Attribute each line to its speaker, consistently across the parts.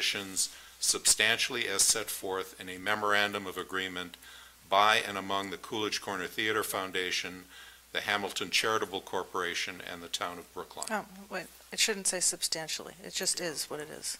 Speaker 1: conditions substantially as set forth in a memorandum of agreement by and among the Coolidge Corner Theater Foundation, the Hamilton Charitable Corporation, and the Town of Brookline.
Speaker 2: Oh, wait, it shouldn't say substantially, it just is what it is.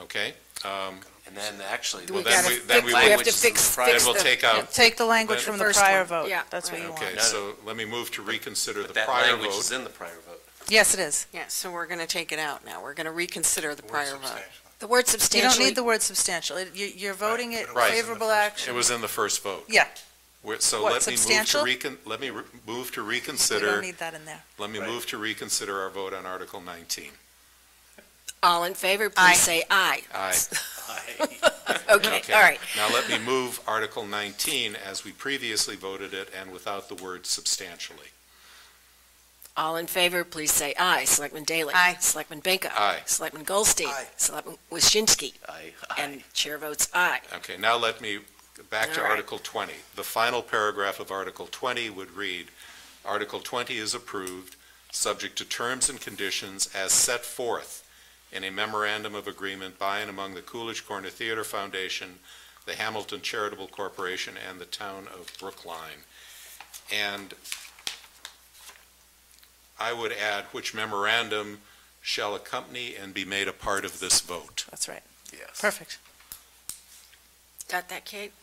Speaker 3: Oh.
Speaker 1: Okay? Um,
Speaker 4: And then actually.
Speaker 1: Well,
Speaker 3: We
Speaker 1: then
Speaker 3: gotta
Speaker 1: we- then
Speaker 3: fix-
Speaker 1: we
Speaker 3: we
Speaker 1: will-
Speaker 3: have to fix,
Speaker 1: Then
Speaker 3: fix
Speaker 1: we'll
Speaker 3: the,
Speaker 1: take out,
Speaker 2: Take the language
Speaker 1: But-
Speaker 2: from the
Speaker 3: First
Speaker 2: prior
Speaker 3: one,
Speaker 2: vote.
Speaker 3: yeah,
Speaker 2: That's what you
Speaker 3: right.
Speaker 2: want.
Speaker 1: okay,
Speaker 4: No, no.
Speaker 1: so let me move to reconsider the
Speaker 4: But that
Speaker 1: prior
Speaker 4: language is
Speaker 1: vote.
Speaker 4: in the prior vote.
Speaker 2: Yes, it is.
Speaker 3: yeah, so we're gonna take it out now, we're gonna reconsider the
Speaker 5: Word
Speaker 3: prior vote.
Speaker 5: substantial.
Speaker 3: The word
Speaker 2: You don't
Speaker 3: substantially,
Speaker 2: need the word substantial, It- you, you're voting it
Speaker 5: but it was in the
Speaker 2: favorable
Speaker 5: first one.
Speaker 2: action.
Speaker 1: It was in the first vote.
Speaker 2: Yeah.
Speaker 1: We're- So
Speaker 2: What,
Speaker 1: let me move to
Speaker 2: substantial?
Speaker 1: recon, let me re- move to
Speaker 2: We don't
Speaker 1: reconsider,
Speaker 2: need that in there.
Speaker 1: let me
Speaker 5: Right.
Speaker 1: move to reconsider our vote on Article 19.
Speaker 3: all in favor,
Speaker 2: Aye.
Speaker 3: please say aye.
Speaker 1: Aye.
Speaker 3: Okay, all right,
Speaker 1: Now let me move Article 19 as we previously voted it and without the word substantially.
Speaker 3: all in favor, please say aye. Selectman Daley.
Speaker 2: Aye.
Speaker 3: Selectman Benko.
Speaker 1: Aye.
Speaker 3: Selectman Goldstein.
Speaker 5: Aye.
Speaker 3: Selectman Waschinsky,
Speaker 4: Aye.
Speaker 3: and chair votes aye.
Speaker 1: Okay, now let me, back to
Speaker 3: All right.
Speaker 1: Article 20. The final paragraph of Article 20 would read, "Article 20 is approved, subject to terms and conditions as set forth in a memorandum of agreement by and among the Coolidge Corner Theater Foundation, the Hamilton Charitable Corporation, and the Town of Brookline." And I would add, which memorandum shall accompany and be made a part of this vote?
Speaker 2: That's right.
Speaker 4: Yes.
Speaker 2: Perfect.
Speaker 3: Got that, Kate?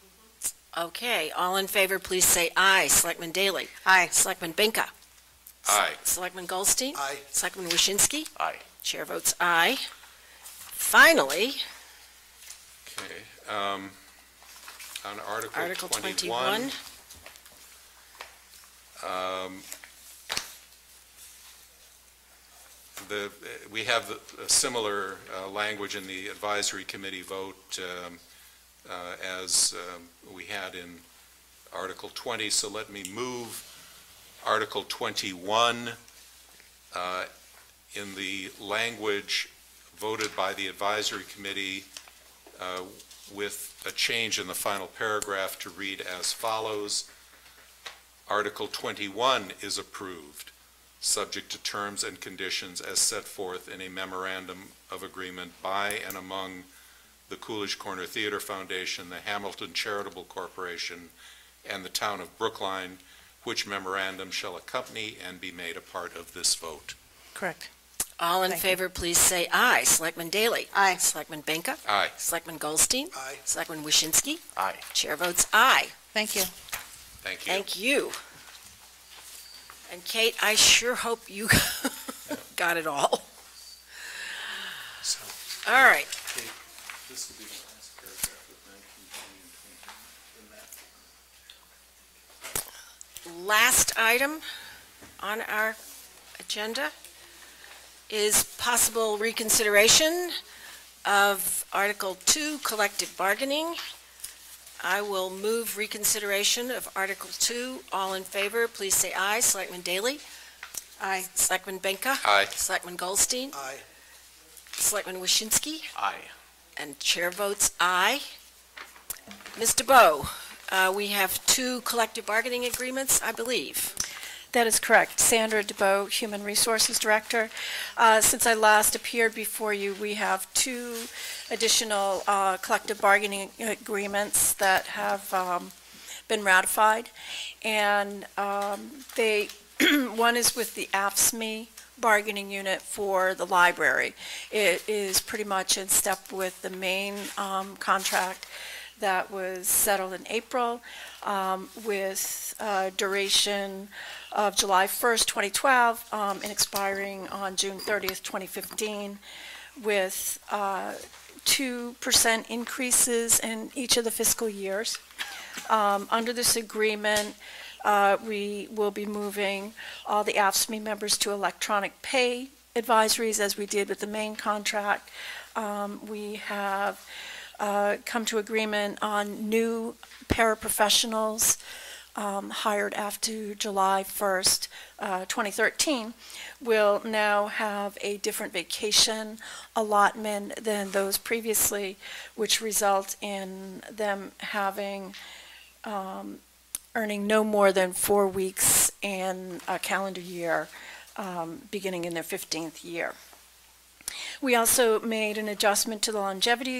Speaker 3: Okay, all in favor, please say aye. Selectman Daley.
Speaker 2: Aye.
Speaker 3: Selectman Benko.
Speaker 1: Aye.
Speaker 3: Selectman Goldstein.
Speaker 5: Aye.
Speaker 3: Selectman Waschinsky.
Speaker 4: Aye.
Speaker 3: Chair votes aye. Finally,
Speaker 1: Okay, um, on Article
Speaker 3: Article
Speaker 1: 21.
Speaker 3: 21.
Speaker 1: um, The, uh, we have the- a similar uh, language in the advisory committee vote um, uh, as um, we had in Article 20, so let me move Article 21 uh, in the language voted by the advisory committee uh, with a change in the final paragraph to read as follows. Article 21 is approved, subject to terms and conditions as set forth in a memorandum of agreement by and among the Coolidge Corner Theater Foundation, the Hamilton Charitable Corporation, and the Town of Brookline, which memorandum shall accompany and be made a part of this vote.
Speaker 2: Correct.
Speaker 3: all in
Speaker 2: Thank you.
Speaker 3: favor, please say aye. Selectman Daley.
Speaker 2: Aye.
Speaker 3: Selectman Benka.
Speaker 1: Aye.
Speaker 3: Selectman Goldstein.
Speaker 5: Aye.
Speaker 3: Selectman Waschinsky.
Speaker 4: Aye.
Speaker 3: Chair votes aye.
Speaker 2: Thank you.
Speaker 1: Thank you.
Speaker 3: Thank you. And Kate, I sure hope you got it all.
Speaker 5: So-
Speaker 3: All right,
Speaker 1: This will be the last paragraph of 19, 20, and 21.
Speaker 3: last item on our agenda is possible reconsideration of Article 2, collective bargaining. I will move reconsideration of Article 2. All in favor, please say aye. Selectman Daley?
Speaker 2: Aye.
Speaker 3: Selectman Benka?
Speaker 1: Aye.
Speaker 3: Selectman Goldstein?
Speaker 5: Aye.
Speaker 3: Selectman Waschinsky?
Speaker 4: Aye.
Speaker 3: And chair votes aye. Mr. Bowe, uh, we have two collective bargaining agreements, I believe.
Speaker 6: That is correct. Sandra DeBoe, Human Resources Director. Uh, Since I last appeared before you, we have two additional uh, collective bargaining agreements that have um, been ratified, and um, they, one is with the AFSMI E bargaining unit for the library. It is pretty much in step with the main um, contract that was settled in April um, with uh, duration of July 1st, 2012, um, and expiring on June 30th, 2015, with uh, 2% increases in each of the fiscal years. Um, Under this agreement, uh, we will be moving all the AFSCME E members to electronic pay advisories, as we did with the main contract. Um, We have uh, come to agreement on new paraprofessionals um, hired after July 1st, uh, 2013, will now have a different vacation allotment than those previously, which result in them having, um, earning no more than four weeks in a calendar year, um, beginning in their 15th year. We also made an adjustment to the longevity